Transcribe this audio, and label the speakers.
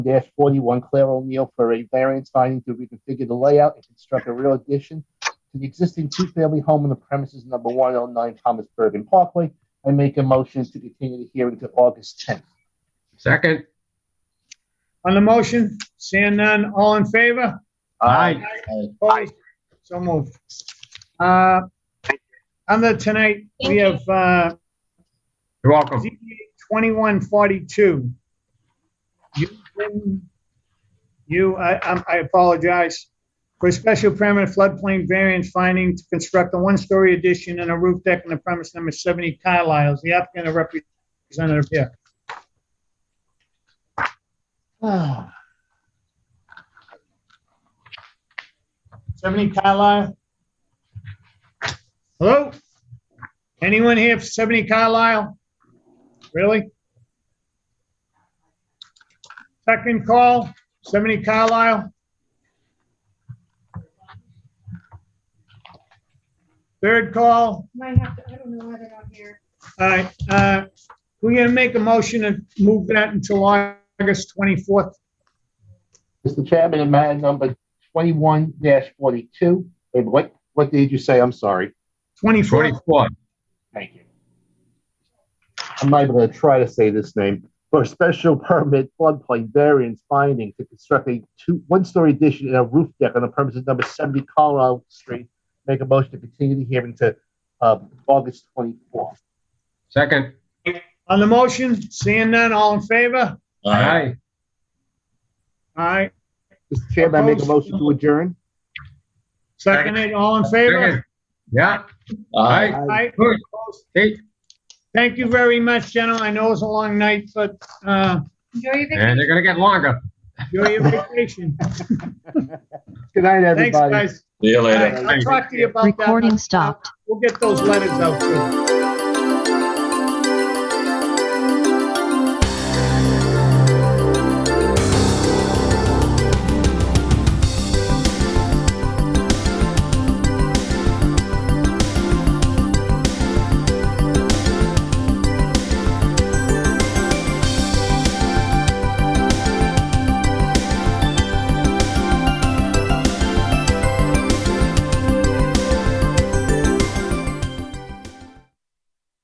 Speaker 1: 41 Claire O'Neill for a variance finding to reconfigure the layout and construct a rear addition to the existing two-family home on the premises number 109 Thomas Bergen Parkway. I make a motion to continue the hearing to August 10th.
Speaker 2: Second?
Speaker 3: On the motion, seeing none, all in favor?
Speaker 1: Uh,
Speaker 2: Aye.
Speaker 3: Opposed? So moved. Uh, Under tonight, we have uh,
Speaker 2: You're welcome.
Speaker 3: ZBA 2142. You, you, I I'm- I apologize. For a special permit floodplain variance finding to construct a one-story addition and a roof deck on the premise number 70 Carlisle. Is the applicant or representative here?
Speaker 1: Aye.
Speaker 3: 70 Carlisle? Hello? Anyone here for 70 Carlisle? Really? Second call, 70 Carlisle? Third call,
Speaker 4: Might have to, I don't know why they're not here.
Speaker 3: all right, uh, we're gonna make a motion and move that until August 24th.
Speaker 1: Mr. Chairman, in matter number 21-42, wait, what, what did you say? I'm sorry.
Speaker 3: 24th,
Speaker 2: 24.
Speaker 1: Thank you. I'm not even going to try to say this name. For a special permit floodplain variance finding to construct a two, one-story addition and a roof deck on the premises number 70 Colorado Street. Make a motion to continue the hearing to um, August 24th.
Speaker 2: Second?
Speaker 3: on the motion, seeing none, all in favor?
Speaker 2: Aye.
Speaker 3: All right,
Speaker 1: Mr. Chairman, I make a motion to adjourn.
Speaker 3: seconded, all in favor?
Speaker 2: Second. Yeah,
Speaker 5: Aye.
Speaker 3: All right,
Speaker 2: good. Hey,
Speaker 3: Thank you very much, gentlemen. I know it was a long night, but uh,
Speaker 4: Enjoy your
Speaker 2: and
Speaker 4: vacation.
Speaker 2: they're gonna get longer.
Speaker 3: enjoy your vacation.
Speaker 1: Good night,
Speaker 3: Thanks,
Speaker 1: everybody.
Speaker 3: guys.
Speaker 5: See you
Speaker 3: All
Speaker 5: later.
Speaker 3: right, I'll talk to you about that.
Speaker 6: Recording stopped.
Speaker 3: We'll get those letters out too.